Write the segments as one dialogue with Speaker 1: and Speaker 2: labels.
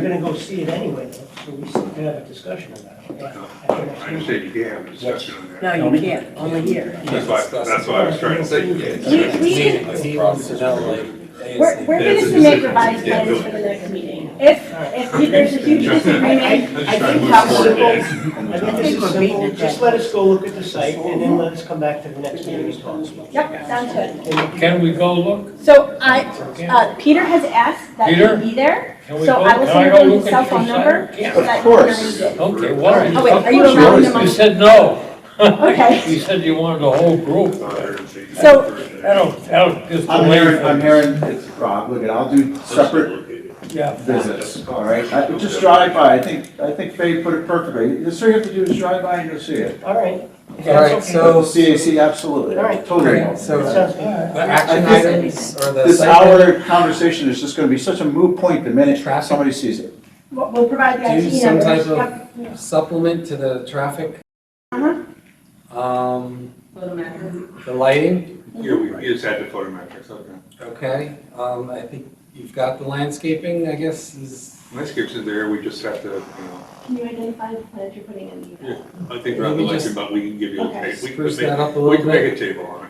Speaker 1: We're gonna go see it anyway, though, so we still can have a discussion about it. yeah, at the next
Speaker 2: I
Speaker 1: meeting.
Speaker 2: understand you can have a discussion on that.
Speaker 3: No, you can't, only here.
Speaker 2: That's why, that's why I was trying to say you can't.
Speaker 4: We- we can-
Speaker 5: He wants to know, like,
Speaker 4: We're, we're
Speaker 2: Yeah,
Speaker 4: going
Speaker 2: it's
Speaker 4: to
Speaker 2: just-
Speaker 4: make revised
Speaker 2: yeah,
Speaker 4: plans
Speaker 2: do
Speaker 4: for
Speaker 2: it.
Speaker 4: the next meeting. If, if there's a huge
Speaker 1: I-
Speaker 4: disagreement,
Speaker 2: I'm
Speaker 1: I
Speaker 2: just trying to
Speaker 1: think
Speaker 2: move
Speaker 1: how
Speaker 2: forward.
Speaker 1: simple-
Speaker 2: man.
Speaker 1: I think this is simple, just let us go look at the site, and then let us come back to the next meeting and talk.
Speaker 4: yep, sounds good.
Speaker 6: Can we go look?
Speaker 4: So I, uh, Peter has asked that
Speaker 6: Peter?
Speaker 4: he be there,
Speaker 6: Can we
Speaker 4: so
Speaker 6: go-
Speaker 4: I will
Speaker 6: can
Speaker 4: send
Speaker 6: go
Speaker 4: him
Speaker 6: look
Speaker 4: his
Speaker 6: at
Speaker 4: cell
Speaker 6: your
Speaker 4: phone
Speaker 6: site?
Speaker 4: number.
Speaker 6: Yeah.
Speaker 4: so that
Speaker 5: Of
Speaker 4: he can
Speaker 5: course.
Speaker 4: read it.
Speaker 6: Okay, why?
Speaker 4: Oh, wait, are you
Speaker 6: Of course
Speaker 4: allowing
Speaker 6: You
Speaker 4: them on-
Speaker 6: said no.
Speaker 4: Okay.
Speaker 6: You said you wanted the whole group.
Speaker 4: So-
Speaker 6: That'll, that'll just.
Speaker 5: I'm
Speaker 6: delay
Speaker 5: Aaron, I'm
Speaker 6: things.
Speaker 5: Aaron, it's Rob, look, I'll do separate
Speaker 6: Yeah.
Speaker 5: visits, all right? I- Just drive by, I think, I think Faye put it perfectly. Just all you have to do is drive by and you'll see it.
Speaker 1: All right.
Speaker 7: All right,
Speaker 5: The
Speaker 7: so,
Speaker 5: CAC, absolutely,
Speaker 1: All right.
Speaker 5: totally.
Speaker 7: Great, so-
Speaker 1: That sounds good.
Speaker 7: the action
Speaker 5: I think-
Speaker 7: items or the.
Speaker 5: This
Speaker 7: site plan-
Speaker 5: hour conversation is just gonna be such a moot point the minute
Speaker 7: Traffic.
Speaker 5: somebody sees it.
Speaker 4: We'll we'll provide the
Speaker 7: Do
Speaker 4: IT
Speaker 7: some
Speaker 4: numbers.
Speaker 7: type of-
Speaker 4: Yep, yeah.
Speaker 7: Supplement to the traffic.
Speaker 1: Uh-huh.
Speaker 7: Um, the lighting,
Speaker 2: Yeah, we we just had the photometrics, okay.
Speaker 7: okay, um, I think you've got the landscaping, I guess, is,
Speaker 2: Landscapes in there, we just have to, you know,
Speaker 4: Can you identify the plans you're putting in the email?
Speaker 2: I think around the
Speaker 7: Maybe
Speaker 2: election,
Speaker 7: just-
Speaker 2: but we can give you, a
Speaker 4: Okay.
Speaker 2: ta- we can
Speaker 7: Spruce that up
Speaker 2: make,
Speaker 7: a
Speaker 2: we can
Speaker 7: little
Speaker 2: make a table on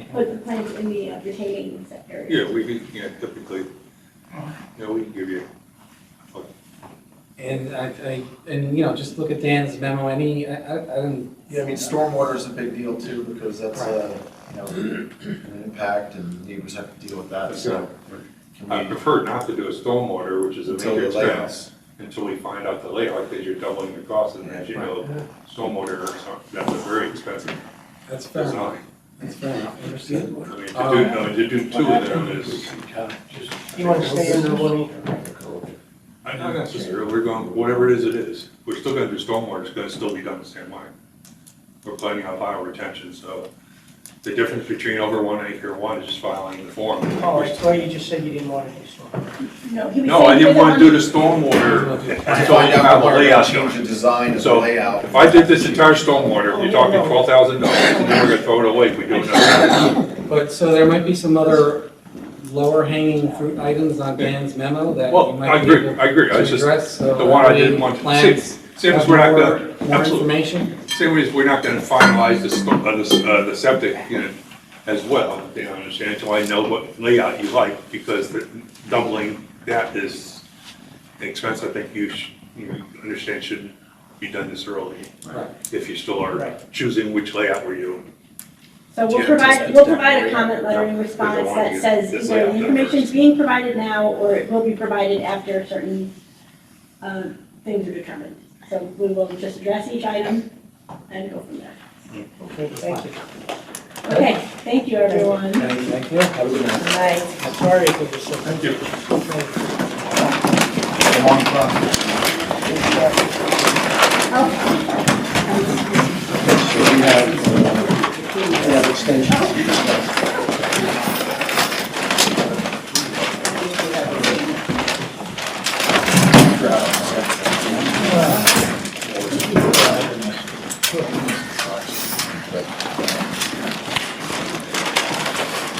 Speaker 2: it.
Speaker 4: Put the plans in the uh, retaining sector.
Speaker 2: Yeah, we, we, you know, typically, you know, we can give you.
Speaker 7: and I, I, and, you know, just look at Dan's memo, any, I, I, I didn't.
Speaker 8: Yeah, I mean, stormwater is a big deal too, because that's a, you know, an impact and neighbors have to deal with that, Uh, so. can
Speaker 2: I
Speaker 8: we-
Speaker 2: prefer not to do a stormwater, which is a
Speaker 8: Until
Speaker 2: major
Speaker 8: the
Speaker 2: expense,
Speaker 8: layouts.
Speaker 2: until we find out the layout, because you're doubling the cost, and as you know, stormwater, is not- that's a very expensive
Speaker 7: That's fair, enough.
Speaker 2: design.
Speaker 7: that's fair enough,
Speaker 2: I
Speaker 7: understood.
Speaker 2: mean, to do,
Speaker 1: Oh,
Speaker 7: Um,
Speaker 2: I mean, to do two of them is,
Speaker 1: You wanna stay under one acre?
Speaker 2: I not necessarily, we're going, whatever it is, it is. We're still gonna do stormwater, it's gonna still be done the same way. We're planning on file retention, so the difference between over one acre and one is just filing the form.
Speaker 1: Oh, I thought you just said you didn't wanna do so.
Speaker 4: No, he was
Speaker 2: No, I
Speaker 4: saying
Speaker 2: didn't
Speaker 4: for the
Speaker 2: wanna do
Speaker 4: one-
Speaker 2: the stormwater until we
Speaker 8: Find
Speaker 2: have
Speaker 8: out
Speaker 2: the
Speaker 8: what we're
Speaker 2: layout
Speaker 8: gonna change
Speaker 2: done.
Speaker 8: the design of the
Speaker 2: So,
Speaker 8: layout.
Speaker 2: If I did this entire stormwater, we're talking twelve thousand dollars, and then we're gonna throw it away if we do another.
Speaker 7: But, so there might be some other lower hanging fruit items on Dan's memo that you
Speaker 2: Well, I
Speaker 7: might be
Speaker 2: agree,
Speaker 7: able
Speaker 2: I agree, I
Speaker 7: to
Speaker 2: was just,
Speaker 7: address, so.
Speaker 2: the one I
Speaker 7: that way
Speaker 2: didn't want to-
Speaker 7: Plans.
Speaker 2: See, same as we're not gonna,
Speaker 7: Have more- More
Speaker 2: absolutely.
Speaker 7: information?
Speaker 2: Same way as we're not gonna finalize the, sto- uh, the, s- uh, the septic unit as well, you know, understand, until I know what layout you like, because the- doubling that is an expense I think you should, you know, understand should be done this early.
Speaker 7: Right.
Speaker 2: If you still are
Speaker 1: Right.
Speaker 2: choosing which layout were you,
Speaker 4: So we'll
Speaker 2: Yeah,
Speaker 4: provide,
Speaker 2: just-
Speaker 4: we'll provide a comment letter in response
Speaker 2: one
Speaker 4: that
Speaker 2: you-
Speaker 4: says
Speaker 2: this
Speaker 4: either
Speaker 2: layout
Speaker 4: the
Speaker 2: that
Speaker 4: information is
Speaker 2: works.
Speaker 4: being provided now, or it will be provided after certain, uh, things are determined. So we will just address each item and go from there.
Speaker 1: Okay, thank you.
Speaker 4: Okay, thank you, everyone.
Speaker 7: Thank thank you. Have a good night.
Speaker 4: Bye.
Speaker 1: I'm sorry if it was so.
Speaker 2: Thank you.
Speaker 8: Along front.
Speaker 5: So we have, uh, we have extensions.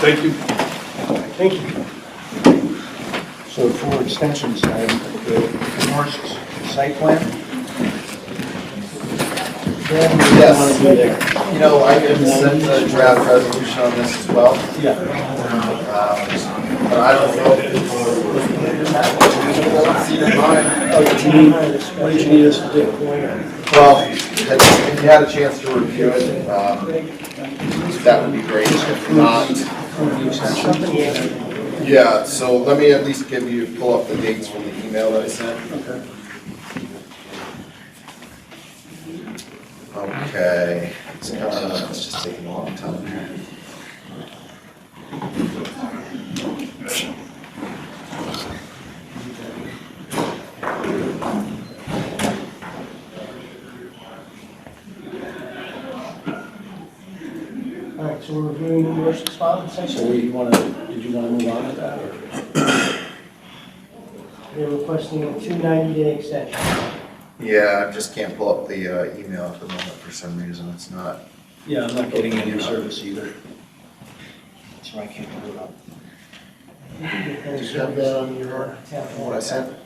Speaker 2: Thank you.
Speaker 1: Thank you.
Speaker 8: So for extensions, I have the Norris site plan? Yes, you know, I can send a draft resolution on this as well. Yeah. But I don't know if it's. Don't see it in mine.
Speaker 1: What did you need us to do?
Speaker 8: Well, if if you had a chance to review it, um, that would be great. If not, Yeah, so let me at least give you, pull up the dates from the email that I sent. Okay. Okay, it's kinda, it's just taking a long time here.
Speaker 1: All right, so we're reviewing the Norris's file, and
Speaker 5: So
Speaker 1: section.
Speaker 5: we want to, did you want to move on to that or?
Speaker 1: They're requesting a two ninety-day extension.
Speaker 8: Yeah, I just can't pull up the uh, email at the moment for some reason, it's not.
Speaker 5: Yeah, I'm not getting any service either. So I can't put it up.
Speaker 1: Did
Speaker 8: you have that on your-
Speaker 1: Yeah.
Speaker 8: What I sent?